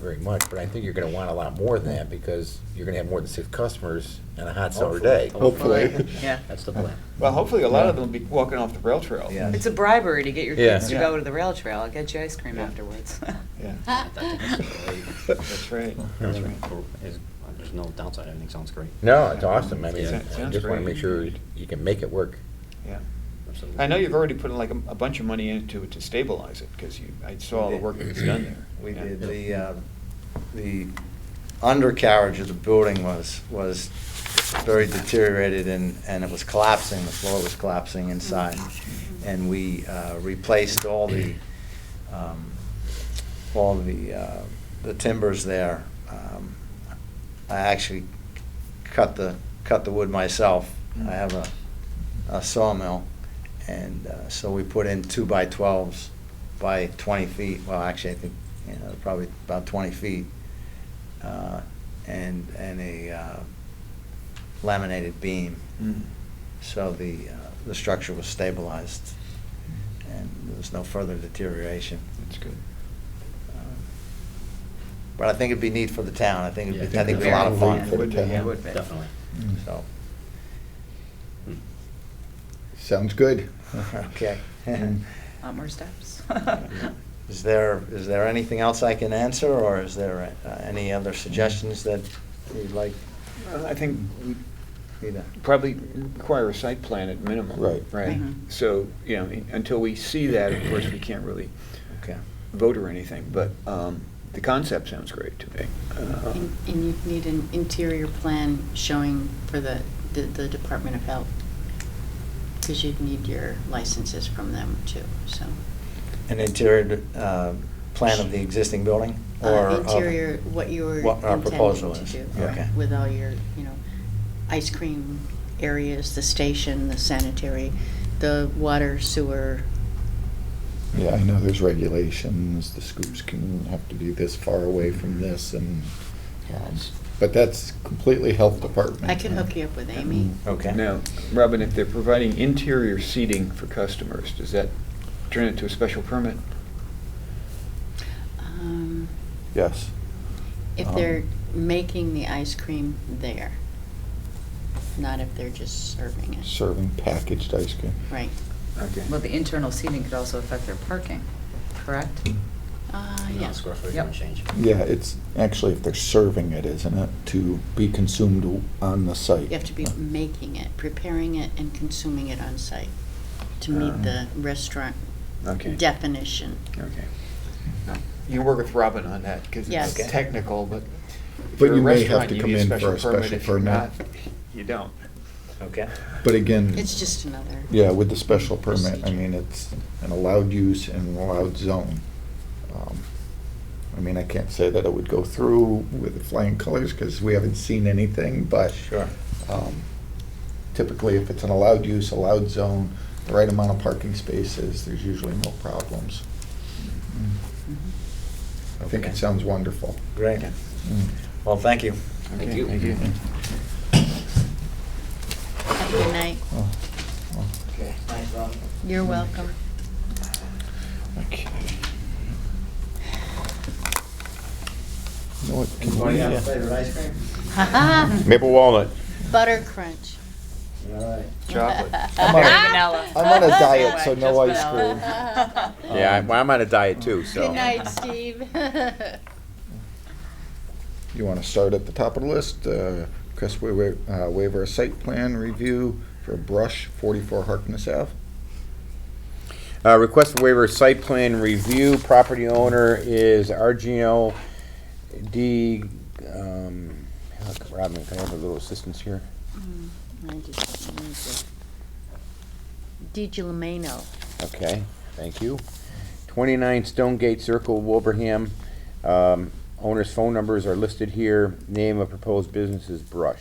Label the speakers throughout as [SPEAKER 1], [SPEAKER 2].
[SPEAKER 1] very much, but I think you're gonna want a lot more than that, because you're gonna have more than six customers on a hot summer day.
[SPEAKER 2] Hopefully.
[SPEAKER 3] Yeah.
[SPEAKER 4] That's the plan.
[SPEAKER 2] Well, hopefully, a lot of them will be walking off the rail trail.
[SPEAKER 4] Yeah.
[SPEAKER 3] It's a bribery to get your
[SPEAKER 1] Yeah.
[SPEAKER 3] kids to
[SPEAKER 2] Yeah.
[SPEAKER 3] go to the rail trail. I'll get you ice cream
[SPEAKER 2] Yeah.
[SPEAKER 3] afterwards.
[SPEAKER 2] Yeah.
[SPEAKER 4] That's
[SPEAKER 2] That's right.
[SPEAKER 1] That's
[SPEAKER 4] Is-
[SPEAKER 1] right.
[SPEAKER 4] There's no downside, everything sounds great.
[SPEAKER 1] No, it's awesome, I mean,
[SPEAKER 4] Yeah.
[SPEAKER 1] I just wanna make sure you can make it work.
[SPEAKER 2] Yeah.
[SPEAKER 4] Absolutely.
[SPEAKER 2] I know you've already put like a, a bunch of money into it to stabilize it, because you, I saw all the work that was done there.
[SPEAKER 5] We
[SPEAKER 2] Yeah.
[SPEAKER 5] did, the, uh, the undercarriage of the building was, was very deteriorated and, and it was collapsing, the floor was collapsing inside. And we uh, replaced all the, um, all the, uh, the timbers there. Um, I actually cut the, cut the wood myself. I have a, a sawmill. And uh, so we put in two by twelves by twenty feet, well, actually, I think, you know, probably about twenty feet. uh, And, and a uh, laminated beam,
[SPEAKER 2] Mm.
[SPEAKER 5] so the, uh, the structure was stabilized and there was no further deterioration.
[SPEAKER 2] That's good.
[SPEAKER 5] Um, But I think it'd be neat for the town, I think it'd be,
[SPEAKER 4] Yeah,
[SPEAKER 5] I think it'd be a lot of
[SPEAKER 3] Very
[SPEAKER 5] fun. Mm.
[SPEAKER 3] neat
[SPEAKER 6] for the town.
[SPEAKER 3] Yeah, would be.
[SPEAKER 4] Definitely.
[SPEAKER 5] So,
[SPEAKER 4] Hmm.
[SPEAKER 6] Sounds good.
[SPEAKER 5] okay.
[SPEAKER 3] Lot more steps.
[SPEAKER 5] Is there, is there anything else I can answer, or is there uh, any other suggestions that you'd like
[SPEAKER 2] Well, I think we
[SPEAKER 5] me to?
[SPEAKER 2] probably require a site plan at minimum.
[SPEAKER 6] Right.
[SPEAKER 2] Right.
[SPEAKER 3] Mhm.
[SPEAKER 2] So, you know, until we see that, of course, we can't really
[SPEAKER 5] Okay.
[SPEAKER 2] vote or anything, but um, the concept sounds great to me. Uh,
[SPEAKER 7] And and you need an interior plan showing for the, the- the Department of Health, because you'd need your licenses from them too, so.
[SPEAKER 5] An interior uh, plan of the existing building?
[SPEAKER 7] Uh,
[SPEAKER 5] or of-
[SPEAKER 7] Interior, what you were
[SPEAKER 5] What our proposal
[SPEAKER 7] intending to
[SPEAKER 5] is.
[SPEAKER 7] do.
[SPEAKER 5] Okay.
[SPEAKER 7] With all your, you know, ice cream areas, the station, the sanitary, the water sewer.
[SPEAKER 6] Yeah, I know there's regulations, the scoops can have to be this far away
[SPEAKER 7] Mm-hmm.
[SPEAKER 6] from this and, um, but that's completely health department.
[SPEAKER 7] I can hook you up with Amy.
[SPEAKER 5] Okay.
[SPEAKER 2] Now, Robin, if they're providing interior seating for customers, does that turn it to a special permit?
[SPEAKER 7] Um,
[SPEAKER 6] Yes.
[SPEAKER 7] If
[SPEAKER 6] Um,
[SPEAKER 7] they're making the ice cream there, not if they're just serving it.
[SPEAKER 6] Serving packaged ice cream.
[SPEAKER 7] Right.
[SPEAKER 2] Okay.
[SPEAKER 8] Well, the internal seating could also affect their parking, correct?
[SPEAKER 7] Uh,
[SPEAKER 4] No,
[SPEAKER 7] yes.
[SPEAKER 4] Square footage
[SPEAKER 8] Yep.
[SPEAKER 4] won't change.
[SPEAKER 6] Yeah, it's actually if they're serving it, isn't it, to be consumed on the site?
[SPEAKER 7] You have to be making it, preparing it, and consuming it on site to
[SPEAKER 6] Um,
[SPEAKER 7] meet the restaurant
[SPEAKER 2] Okay.
[SPEAKER 7] definition.
[SPEAKER 2] Okay. You can work with Robin on that, because it's
[SPEAKER 7] Yes. Okay.
[SPEAKER 2] technical, but if
[SPEAKER 6] But
[SPEAKER 2] you're a
[SPEAKER 6] you may have
[SPEAKER 2] restaurant,
[SPEAKER 6] to
[SPEAKER 2] you
[SPEAKER 6] come
[SPEAKER 2] need
[SPEAKER 6] in for a special
[SPEAKER 2] If you're
[SPEAKER 6] permit.
[SPEAKER 2] not, You don't.
[SPEAKER 5] Okay.
[SPEAKER 6] But again.
[SPEAKER 7] It's just another.
[SPEAKER 6] Yeah, with the special permit, I
[SPEAKER 7] Procedure.
[SPEAKER 6] mean, it's an allowed use in an allowed zone. Um, I mean, I can't say that it would go through with flying colors, because we haven't seen anything, but
[SPEAKER 5] Sure.
[SPEAKER 6] um, typically, if it's an allowed use, allowed zone, the right amount of parking spaces, there's usually no problems. I think
[SPEAKER 5] Okay.
[SPEAKER 6] it sounds wonderful.
[SPEAKER 5] Great.
[SPEAKER 2] Okay.
[SPEAKER 5] Well, thank you.
[SPEAKER 2] Okay,
[SPEAKER 4] you.
[SPEAKER 2] Thank you.
[SPEAKER 7] Have a good night.
[SPEAKER 6] Oh, oh,
[SPEAKER 5] Okay.
[SPEAKER 7] You're welcome.
[SPEAKER 6] Okay. You know what, can we,
[SPEAKER 5] Anybody
[SPEAKER 6] uh,
[SPEAKER 5] else flavored ice cream?
[SPEAKER 7] Ha-ha,
[SPEAKER 1] Maple walnut.
[SPEAKER 7] butter crunch.
[SPEAKER 5] All right.
[SPEAKER 2] Chocolate.
[SPEAKER 6] I'm on a- I'm on a diet, so no ice cream.
[SPEAKER 1] Yeah, I'm, I'm on a diet too, so.
[SPEAKER 7] Good night, Steve. Mm,
[SPEAKER 6] You want to start at the top of the list, uh, request waiver, uh, waiver of site plan review for brush forty-four Harkness Ave.
[SPEAKER 1] Uh, Request for waiver, site plan review, property owner is Argino D, um, look, Robin, can I have a little assistance here?
[SPEAKER 7] I just don't need the- DiGiulimeno.
[SPEAKER 1] Okay, thank you. Twenty-nine Stone Gate Circle, Wilbraham. Um, Owner's phone numbers are listed here. Name of proposed business is Brush.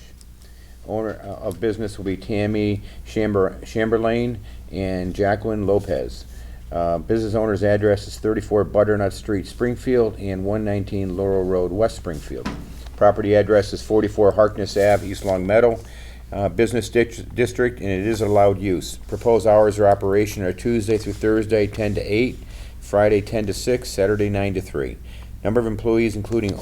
[SPEAKER 1] Owner uh, of business will be Tammy Chamber, Chamberlain and Jacqueline Lopez. Uh, business owner's address is thirty-four Butternut Street, Springfield, and one nineteen Laurel Road, West Springfield. Property address is forty-four Harkness Ave, East Long Meadow uh, business dict- district, and it is allowed use. Proposed hours of operation are Tuesday through Thursday, 10 to 8, Friday, 10 to 6, Saturday, 9 to 3. Number of employees, including